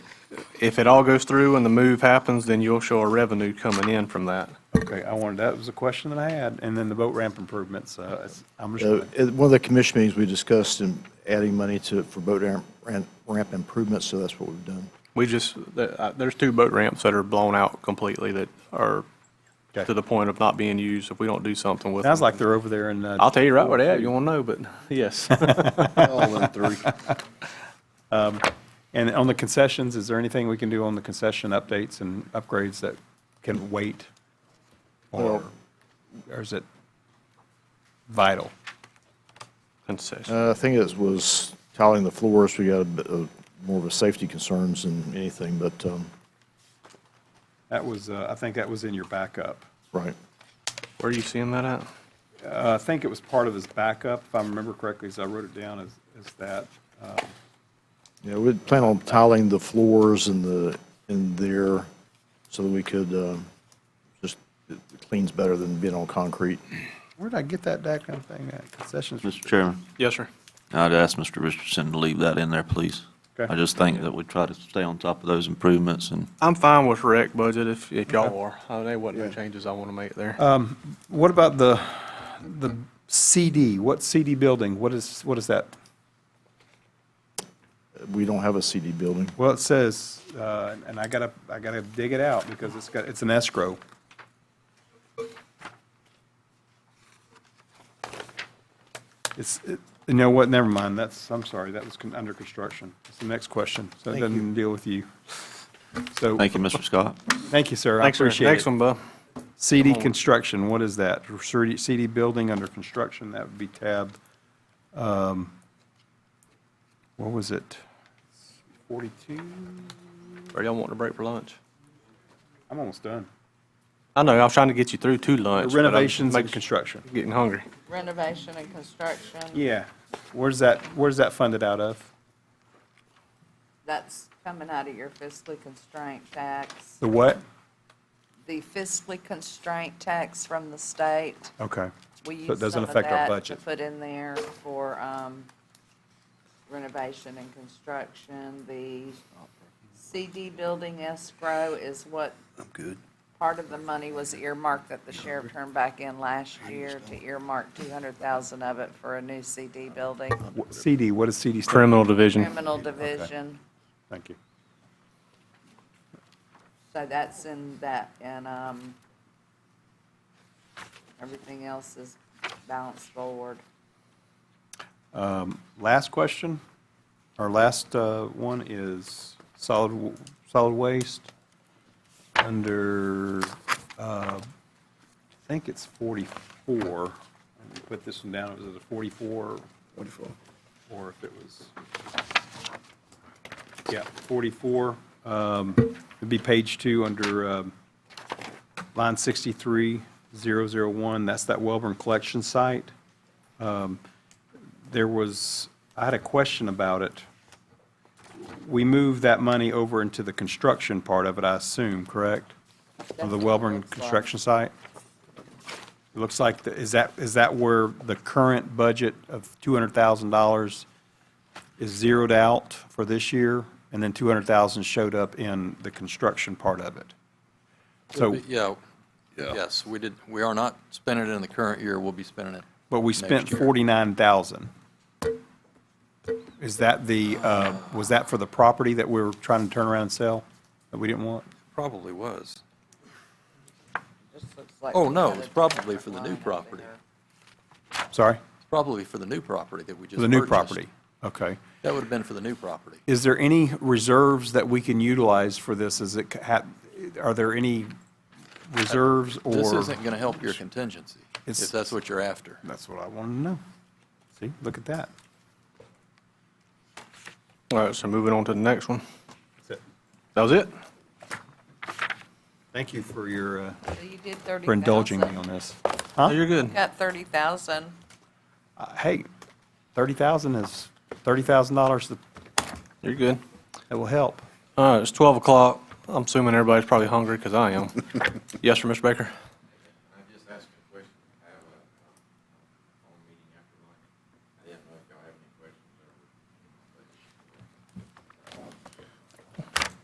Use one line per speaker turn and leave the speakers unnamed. if it all goes through and the move happens, then you'll show a revenue coming in from that.
Okay, I wanted, that was a question that I had, and then the boat ramp improvements, uh, it's- I'm just,
So
gonna-
at one of the commission meetings, we discussed in adding money to, for boat ramp- ramp ramp improvements, so that's what we've done.
We just, th- uh, there's two boat ramps that are blown out completely that are
Okay.
to the point of not being used if we don't do something with them.
sounds like they're over there in. uh,
I'll tell you right where they at, you won't know, but yes.
All in three.
And on the concessions, is there anything we can do on the concession updates and upgrades that can wait? Or or is it vital?
Concession.
Uh, I think it was tiling the floors, we got a bit of, more of a safety concerns than anything, but, um,
That was, uh, I think that was in your backup.
right.
Where are you seeing that at?
Uh, I think it was part of his backup, if I remember correctly, as I wrote it down as, as that. Uh,
Yeah, we'd plan on tiling the floors in the, in there so that we could, um, just, it cleans better than being on concrete.
Where did I get that backup thing at? Concessions?
Mr. Chairman,
Yes, sir.
I'd ask Mr. Richardson to leave that in there, please.
Okay.
I just think that we try to stay on top of those improvements and
I'm fine with rec budget if, if y'all are. Uh, There wasn't no changes I want to make there.
Uh, What about the, the CD? What CD building? What is, what is that?
We don't have a CD building.
Well, it says, uh, and I gotta, I gotta dig it out because it's got, it's an escrow. It's, it- you know what, never mind, that's, I'm sorry, that was con- under construction. That's the next question, so it
Thank
doesn't deal with you. So,
thank you, Mr. Scott.
thank you, sir, I
Thanks, sir.
appreciate it.
Next one, Bub.
CD construction, what is that? CD CD building under construction, that would be tab, um, what was it? 42?
Or y'all want a break for lunch?
I'm almost done.
I know, I was trying to get you through to lunch. but I'm
Renovations and
making-
construction.
Getting hungry.
renovation and construction.
Yeah. Where's that, where's that funded out of?
That's coming out of your fiscally constraint tax,
The what?
the fiscally constraint tax from the state.
Okay.
We
So it
use
doesn't
some of
affect our
that to
budget.
put in there for um, renovation and construction. The CD building escrow is what
I'm good.
part of the money was earmarked that the sheriff turned back in last year to earmark 200,000 of it for a new CD building,
Wh- CD, what is CD stand?
Criminal division.
criminal division.
Thank you.
So that's in that, and, um, everything else is balanced forward.
Last question, our last uh, one is solid, w- solid waste under, uh, I think it's 44. Let me Put this one down, was it a 44? 44. Or if it was, yeah, 44. Um, It'd be page two under um, line 63001, that's that Welborn Collection Site Um, there was, I had a question about it. We moved that money over into the construction part of it, I assume, correct? Of the
That's what it
Welborn
looks like.
construction site? It looks like, the- is that, is that where the current budget of $200,000 is zeroed out for this year? And then 200,000 showed up in the construction part of it? So,
Yeah, yes, we did, we are not spending it in the current year, we'll be spending it.
but we
next
spent
year.
49,000. Is that the, uh, was that for the property that we were trying to turn around and sell that we didn't want?
Probably was.
Just looks like
Oh,
we
no,
got a
it's probably for the
different line over
new property.
there.
Sorry?
Probably for the new property that we just
For the new
purchased.
property? Okay.
That would have been for the new property.
Is there any reserves that we can utilize for this? Is it, ha- are there any reserves or?
This isn't going to help your contingency,
It's-
if that's what you're after.
That's what I want to know. See, look at that.
All right, so moving on to the next one. That was it?
Thank you for your, uh,
So you did thirty thousand.
for indulging me on this.
Oh, You're good.
Got thirty thousand.
Uh, Hey, 30,000 is, $30,000 that-
You're good.
that will help.
All right, it's 12 o'clock. I'm assuming everybody's probably hungry because I am. Yes, sir, Mr. Baker?